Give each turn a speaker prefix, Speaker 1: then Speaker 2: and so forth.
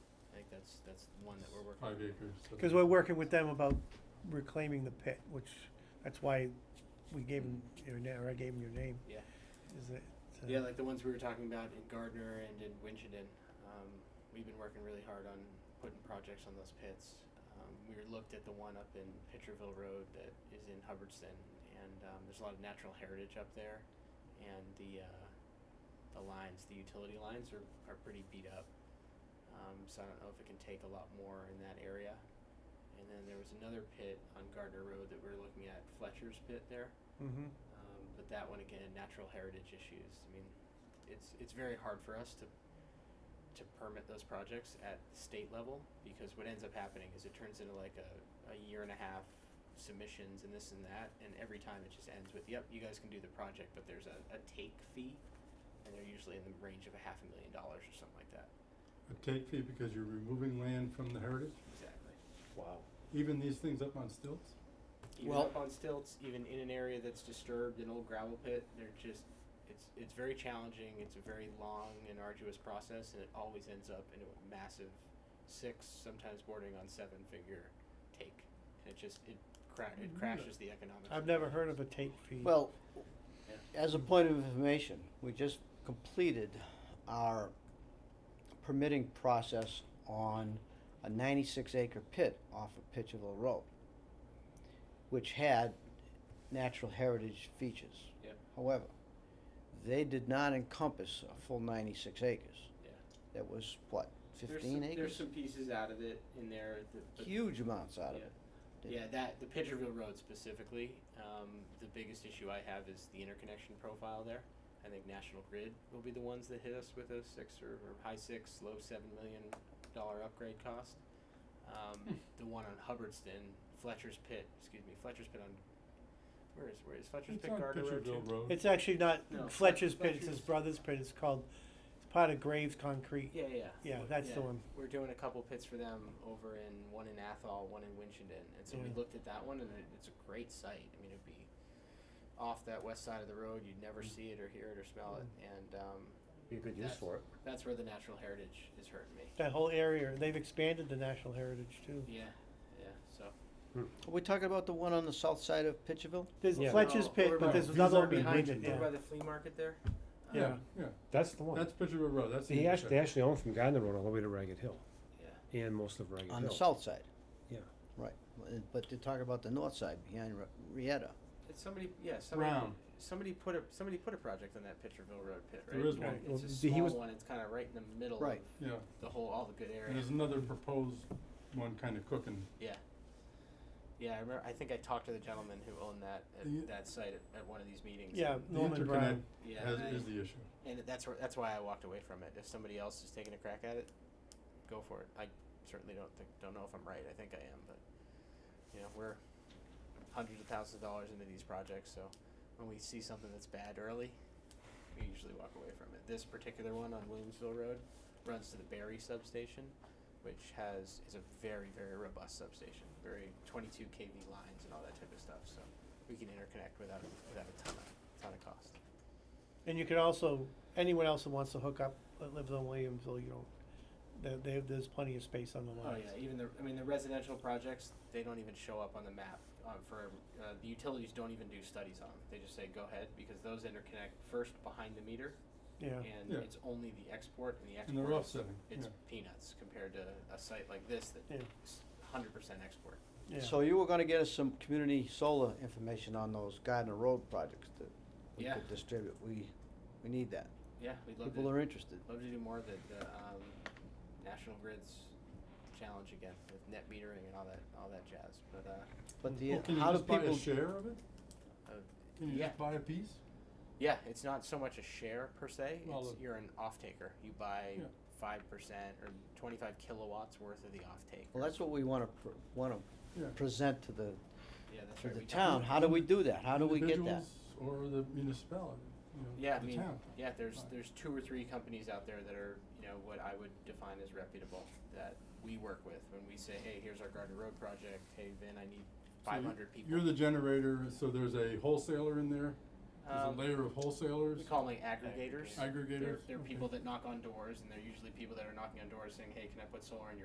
Speaker 1: that's, that's one that we're working on.
Speaker 2: five acres. so
Speaker 3: Cause we're working with them about reclaiming the pit, which, that's why we gave them your na- or I gave them your name.
Speaker 1: Yeah.
Speaker 3: Is it? uh,
Speaker 1: Yeah, like the ones we were talking about in Gardner and in Winchendon. Um, we've been working really hard on putting projects on those pits. Um, we were looked at the one up in Pitcherville Road that is in Hubbardston, and um, there's a lot of natural heritage up there, and the uh, the lines, the utility lines, are are pretty beat up. Um, so I don't know if it can take a lot more in that area. And then there was another pit on Gardner Road that we were looking at, Fletcher's pit there.
Speaker 3: Mhm.
Speaker 1: Um, but that one again, natural heritage issues. I mean, it's it's very hard for us to to permit those projects at the state level because what ends up happening is it turns into like a, a year and a half submissions and this and that and every time it just ends with yep you guys can do the project but there's a, a take fee and they're usually in the range of a half a million dollars or something like that
Speaker 2: A take fee because you're removing land from the heritage,
Speaker 1: exactly
Speaker 4: Wow.
Speaker 2: even these things up on stilts?
Speaker 1: even
Speaker 4: Well-
Speaker 1: up on stilts, even in an area that's disturbed, an old gravel pit, they're just it's it's very challenging. It's a very long and arduous process, and it always ends up in a massive six, sometimes bordering on seven figure take, and it just it cra- it crashes the economics.
Speaker 3: Mm-hmm. I've never heard of a tape fee.
Speaker 4: Well, as a point of information, we just completed our permitting process on a ninety-six acre pit off of Pitcherville Road, which had natural heritage features.
Speaker 1: Yep.
Speaker 4: However, they did not encompass a full ninety-six acres.
Speaker 1: Yeah.
Speaker 4: That was, what,
Speaker 1: There's
Speaker 4: fifteen
Speaker 1: some- There's
Speaker 4: acres?
Speaker 1: some pieces out of it in there. That, but
Speaker 4: Huge amounts out of
Speaker 1: Yeah.
Speaker 4: it. Did-
Speaker 1: Yeah, that the Pitcherville Road specifically. Um, the biggest issue I have is the interconnection profile there. I think National Grid will be the ones that hit us with a six or, or high six, low seven million dollar upgrade cost.
Speaker 4: Hmm.
Speaker 1: Um, the one on Hubbardston, Fletcher's Pit, excuse me, Fletcher's Pit on. Where is where is Fletcher's
Speaker 2: It's
Speaker 1: Pit
Speaker 2: on
Speaker 1: Gardner Road? too?
Speaker 2: Pitcherville Road.
Speaker 3: It's actually not
Speaker 1: No, Flet-
Speaker 3: Fletcher's pit, it's his
Speaker 1: Fletcher's-
Speaker 3: brother's pit, it's called, it's part of Graves Concrete.
Speaker 1: Yeah, yeah.
Speaker 3: Yeah, that's the one.
Speaker 1: We're doing a couple pits for them over in one in Athol, one in Winchendon, and so we
Speaker 3: Yeah.
Speaker 1: looked at that one, and it, it's a great site. I mean, it'd be off that west side of the road; you'd
Speaker 3: Mm.
Speaker 1: never see it or hear it or smell it, and um,
Speaker 4: Be good
Speaker 1: use
Speaker 4: for it.
Speaker 1: that's where the natural heritage is hurting me.
Speaker 3: That whole area, they've expanded the national heritage too.
Speaker 1: Yeah, yeah. So
Speaker 4: Are we talking about the one on the south side of Pitcherville?
Speaker 3: There's
Speaker 5: Yeah.
Speaker 3: Fletcher's
Speaker 1: No,
Speaker 3: pit,
Speaker 1: over
Speaker 3: but
Speaker 2: by-
Speaker 3: there's
Speaker 2: he's
Speaker 3: another one
Speaker 2: up in
Speaker 3: behind it,
Speaker 2: Bridgeton.
Speaker 3: yeah.
Speaker 1: by the flea market there. Uh,
Speaker 3: Yeah.
Speaker 2: Yeah,
Speaker 5: That's the one.
Speaker 2: that's Pitcherville Road, that's.
Speaker 5: He
Speaker 2: the
Speaker 5: actually, they
Speaker 2: intersection.
Speaker 5: actually own from Gardner Road all the way to Ragged Hill
Speaker 1: yeah.
Speaker 5: and most of Ragged Hill.
Speaker 4: On the south side?
Speaker 5: Yeah.
Speaker 4: Right, Well, it- but they're talking about the north side behind Re- Rieta.
Speaker 1: It's somebody, yeah, somebody,
Speaker 2: Brown,
Speaker 1: somebody put a somebody put a project on that Pitcherville Road pit, right?
Speaker 2: There is one.
Speaker 3: Right.
Speaker 5: Well,
Speaker 1: It's a
Speaker 5: he
Speaker 1: small
Speaker 5: was-
Speaker 1: one. It's kind of right in the middle
Speaker 4: Right.
Speaker 1: of
Speaker 2: yeah,
Speaker 1: the whole all the good
Speaker 2: and
Speaker 1: area.
Speaker 2: there's another proposed one kind of cooking.
Speaker 1: Yeah, I remember. I think I talked to the gentleman who owned that at
Speaker 2: The-
Speaker 1: that site at, at one of these meetings.
Speaker 3: Yeah,
Speaker 1: and-
Speaker 2: The
Speaker 3: Norman Brown.
Speaker 2: interconnect
Speaker 1: yeah.
Speaker 2: has,
Speaker 1: and, I-
Speaker 2: is the issue.
Speaker 1: and that's where, that's why I walked away from it. If somebody else is taking a crack at it, go for it. I certainly don't think don't know if I'm right. I think I am, but you know we're hundreds of thousands of dollars into these projects, so when we see something that's bad early, we usually walk away from it. This particular one on Williamsville Road runs to the Barry substation, which has is a very very robust substation, very 22 kV lines and all that type of stuff. So we can interconnect without without a ton of ton of cost.
Speaker 3: And you could also, anyone else that wants to hook up, that lives on Williamsville, you don't, there, there, there's plenty of space on the
Speaker 1: Oh
Speaker 3: lines.
Speaker 1: yeah, even the, I mean, the residential projects, they don't even show up on the map, um, for, uh, the utilities don't even do studies on them, they just say go ahead, because those interconnect first behind the meter,
Speaker 3: Yeah,
Speaker 1: and
Speaker 2: Yeah.
Speaker 1: it's only the export, and the
Speaker 2: And they're
Speaker 1: export,
Speaker 2: offsetting, yeah.
Speaker 1: it's peanuts compared to a site like this that
Speaker 3: Yeah.
Speaker 1: is hundred percent export.
Speaker 3: yeah.
Speaker 4: So you were gonna get us some community solar information on those Gardner Road projects that we
Speaker 1: Yeah.
Speaker 4: could distribute. We, we need that.
Speaker 1: Yeah, we'd love
Speaker 4: People
Speaker 1: to,
Speaker 4: are interested.
Speaker 1: love to do more of the, the, um, National Grid's challenge again, with net metering and all that, all that jazz, but, uh,
Speaker 4: But the,
Speaker 2: Well, Oh, can you
Speaker 4: how do
Speaker 2: just buy a
Speaker 4: people,
Speaker 2: share of it?
Speaker 1: uh,
Speaker 2: Can you
Speaker 1: Yeah.
Speaker 2: just buy a piece?
Speaker 1: Yeah, it's not so much a share per se.
Speaker 2: Well,
Speaker 1: it's,
Speaker 2: the-
Speaker 1: you're an off taker. You buy
Speaker 2: Yeah.
Speaker 1: five percent or twenty five kilowatts worth of the off take.
Speaker 4: well, that's what we wanna, pr- wanna
Speaker 2: Yeah.
Speaker 4: present to the,
Speaker 1: yeah, that's
Speaker 4: to
Speaker 1: right.
Speaker 4: the
Speaker 1: we-
Speaker 4: town. How do we do that? How do we get that?
Speaker 2: Individuals Or the municipality, you know,
Speaker 1: Yeah, I
Speaker 2: the
Speaker 1: mean,
Speaker 2: town.
Speaker 1: yeah. There's
Speaker 2: Right.
Speaker 1: there's two or three companies out there that are you know what I would define as reputable that we work with when we say, hey, here's our Garden Road project. Hey, Vin, I need
Speaker 2: So
Speaker 1: five
Speaker 2: you-
Speaker 1: hundred people.
Speaker 2: You're the generator, so there's a wholesaler in there, there's a
Speaker 1: um,
Speaker 2: layer of wholesalers,
Speaker 1: we call them like aggregators.
Speaker 2: aggregators.
Speaker 1: They're, they're
Speaker 2: okay.
Speaker 1: people that knock on doors, and they're usually people that are knocking on doors saying, "Hey, can I put solar in your